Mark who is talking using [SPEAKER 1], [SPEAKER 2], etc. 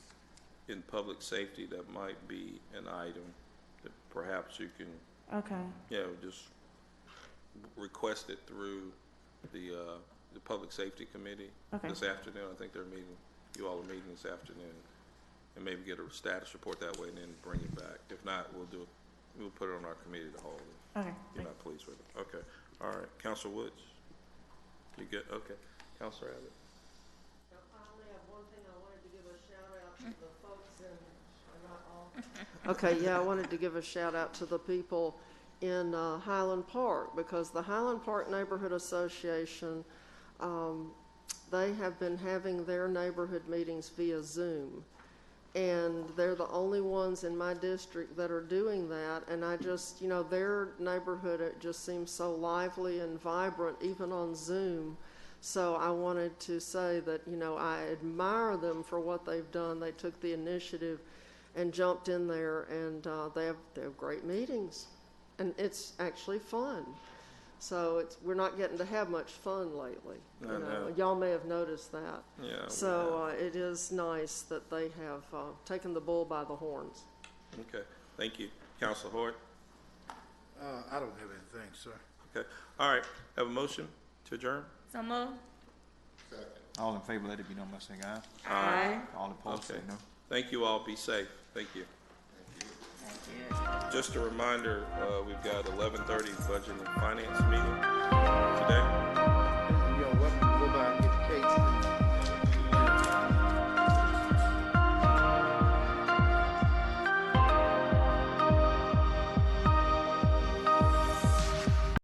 [SPEAKER 1] in public safety, that might be an item that perhaps you can,
[SPEAKER 2] Okay,
[SPEAKER 1] you know, just request it through the, uh, the Public Safety Committee
[SPEAKER 2] Okay.
[SPEAKER 1] this afternoon. I think they're meeting, you all are meeting this afternoon. And maybe get a status report that way and then bring it back. If not, we'll do, it. we'll put it on our committee to hold it.
[SPEAKER 2] okay.
[SPEAKER 1] You're not pleased with it, okay. All right, Counsel Woods? You good, okay. Counselor Abbott?
[SPEAKER 3] I finally have one thing I wanted to give a shout out to the folks in, are not all- Okay, yeah, I wanted to give a shout out to the people in uh, Highland Park because the Highland Park Neighborhood Association, um, they have been having their neighborhood meetings via Zoom. And they're the only ones in my district that are doing that. And I just, you know, their neighborhood, it just seems so lively and vibrant, even on Zoom. So I wanted to say that, you know, I admire them for what they've done. They took the initiative and jumped in there, and uh, they, have, they have great meetings. And it's actually fun. So it's, we're not getting to have much fun lately. You
[SPEAKER 1] I know.
[SPEAKER 3] Y'all may have noticed that.
[SPEAKER 1] Yeah.
[SPEAKER 3] So uh, it is nice that they have uh, taken the bull by the horns.
[SPEAKER 1] yeah. Okay, thank you. Counsel Hort?
[SPEAKER 4] Uh, I don't have anything, sir.
[SPEAKER 1] Okay, all right, have a motion to adjourn?
[SPEAKER 5] So moved.
[SPEAKER 6] All in favor, let it be known by saying aye.
[SPEAKER 5] Aye.
[SPEAKER 6] All opposed, say
[SPEAKER 1] Okay.
[SPEAKER 6] no.
[SPEAKER 1] Thank you all, be safe, thank you.
[SPEAKER 5] Thank you.
[SPEAKER 1] Just a reminder, uh, we've got eleven thirty budget and finance meeting today.